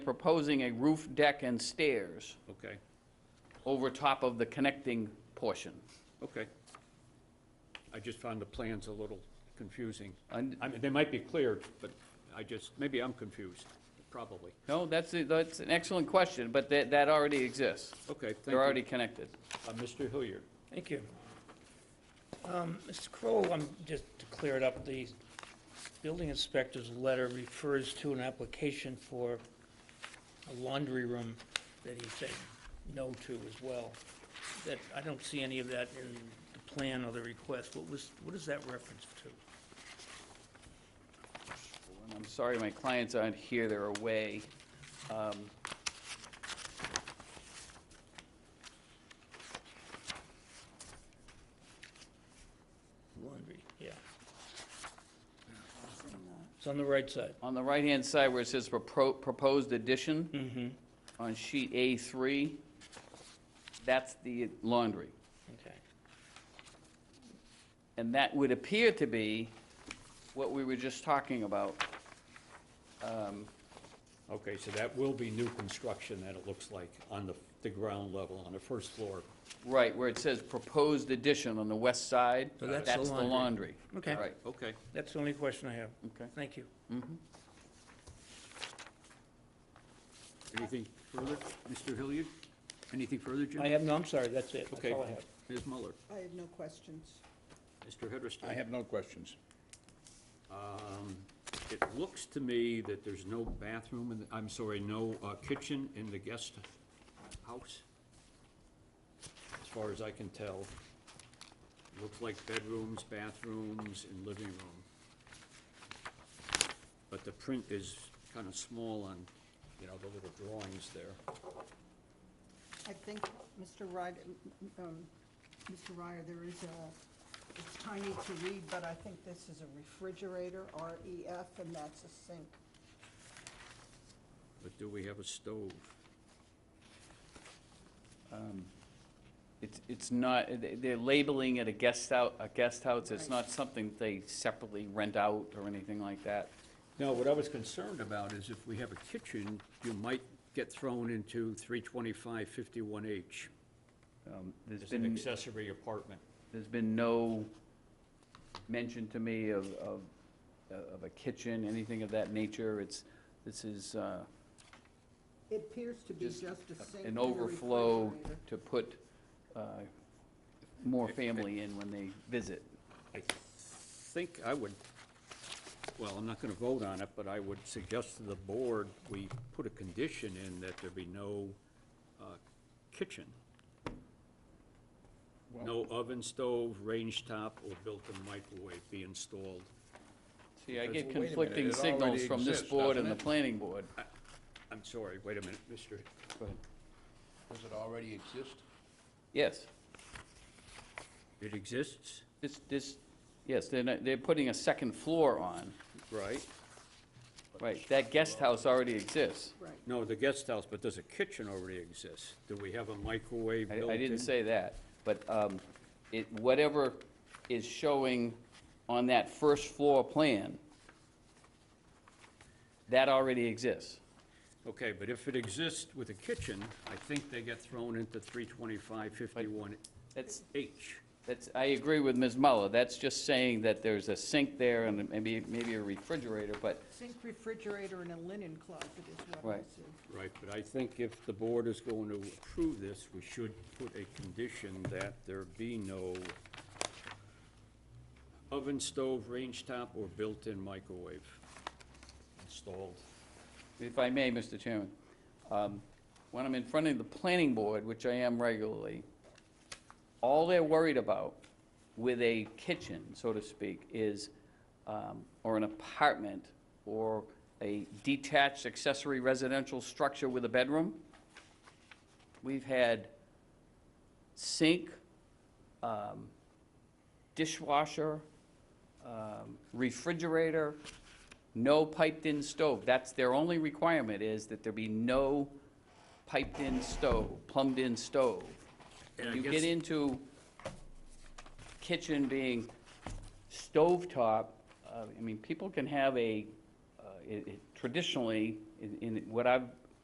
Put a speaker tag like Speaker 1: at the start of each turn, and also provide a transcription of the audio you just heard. Speaker 1: proposing a roof deck and stairs
Speaker 2: Okay,
Speaker 1: over top of the connecting portion.
Speaker 2: okay. I just found the plans a little confusing. I
Speaker 1: And-
Speaker 2: mean, they might be cleared, but I just, maybe I'm confused, probably.
Speaker 1: No, that's, a- that's an excellent question, but that, that already exists.
Speaker 2: Okay, thank you.
Speaker 1: They're already connected.
Speaker 2: Uh, Mr. Hilliard,
Speaker 3: Thank you. Um, Mr. Crowell, I'm, just to clear it up, the building inspector's letter refers to an application for a laundry room that he said no to as well. That, I don't see any of that in the plan or the request. What was, what is that reference to?
Speaker 1: And I'm sorry my clients aren't here, they're away. Um,
Speaker 3: Laundry, yeah. It's on the right side.
Speaker 1: On the right-hand side where it says propo- proposed addition,
Speaker 3: Mm-hmm.
Speaker 1: on sheet A3, that's the laundry.
Speaker 3: Okay.
Speaker 1: And that would appear to be what we were just talking about. Um,
Speaker 2: okay, so that will be new construction that it looks like on the, the ground level, on the first floor.
Speaker 1: Right, where it says proposed addition on the west side,
Speaker 3: So Oh, that's the
Speaker 1: that's the laundry.
Speaker 3: laundry. Okay.
Speaker 1: Right,
Speaker 2: Okay.
Speaker 3: That's the only question I have.
Speaker 1: okay.
Speaker 3: Thank you.
Speaker 2: Anything further, Mr. Hilliard? Anything further,
Speaker 3: I
Speaker 2: Jim?
Speaker 3: have, no, I'm sorry, that's it. That's
Speaker 2: Okay.
Speaker 3: all I have.
Speaker 2: Ms. Muller,
Speaker 4: I have no questions.
Speaker 2: Mr. Hederston?
Speaker 5: I have no questions.
Speaker 2: Um, It looks to me that there's no bathroom, in the- I'm sorry, no uh, kitchen in the guest house, as far as I can tell. Looks like bedrooms, bathrooms, and living room. But the print is kind of small on, you know, the little drawings there.
Speaker 4: I think, Mr. Ryder, um, Mr. Ryder, there is a, it's tiny to read, but I think this is a refrigerator, REF, and that's a sink.
Speaker 2: But do we have a stove?
Speaker 1: It's, it's not, they- they're labeling it a guest out, a guest house, it's
Speaker 4: Right.
Speaker 1: not something they separately rent out or anything like that.
Speaker 2: No, what I was concerned about is if we have a kitchen, you might get thrown into 32551H,
Speaker 1: Um, There's
Speaker 2: as an
Speaker 1: been,
Speaker 2: accessory apartment.
Speaker 1: there's been no mention to me of, of, of a kitchen, anything of that nature. It's, this is uh,
Speaker 4: It appears to be
Speaker 1: Just
Speaker 4: just a sink
Speaker 1: an
Speaker 4: and a
Speaker 1: overflow
Speaker 4: refrigerator.
Speaker 1: to put uh, more family in when they visit.
Speaker 2: I think I would, well, I'm not gonna vote on it, but I would suggest to the board, we put a condition in that there be no uh, kitchen. No oven stove, range top, or built-in microwave be installed.
Speaker 1: See, I
Speaker 5: Because,
Speaker 1: get
Speaker 5: well, wait a minute,
Speaker 1: conflicting
Speaker 5: it
Speaker 1: signals
Speaker 5: already
Speaker 1: from this
Speaker 5: exists,
Speaker 1: board
Speaker 5: doesn't
Speaker 1: and the
Speaker 5: it? Uh,
Speaker 1: planning board.
Speaker 2: I'm sorry, wait a minute, Mr.
Speaker 5: Does it already exist?
Speaker 1: Yes,
Speaker 2: It exists?
Speaker 1: this, this, yes, they're, not- they're putting a second floor on,
Speaker 2: Right.
Speaker 1: right, that guest house already exists.
Speaker 4: Right.
Speaker 2: No, the guest house, but does a kitchen already exist? Do we have a microwave
Speaker 1: I,
Speaker 2: built in?
Speaker 1: I didn't say that, but, um, it, whatever is showing on that first floor plan, that already exists.
Speaker 2: Okay, but if it exists with a kitchen, I think they get thrown into 32551H.
Speaker 1: That's, that's, I agree with Ms. Muller, that's just saying that there's a sink there and maybe, maybe a refrigerator, but
Speaker 4: Sink, refrigerator, and a linen closet is what I
Speaker 1: Right.
Speaker 4: see.
Speaker 2: Right, but I think if the board is going to approve this, we should put a condition that there be no oven, stove, range top, or built-in microwave installed.
Speaker 1: If I may, Mr. Chairman, um, when I'm in front of the planning board, which I am regularly, all they're worried about with a kitchen, so to speak, is, um, or an apartment, or a detached accessory residential structure with a bedroom. We've had sink, um, dishwasher, um, refrigerator, no piped-in stove. That's their only requirement, is that there be no piped-in stove, plumbed-in stove.
Speaker 2: And I
Speaker 1: You
Speaker 2: guess-
Speaker 1: get into kitchen being stovetop, uh, I mean, people can have a, uh, it- it- traditionally, in- in what I've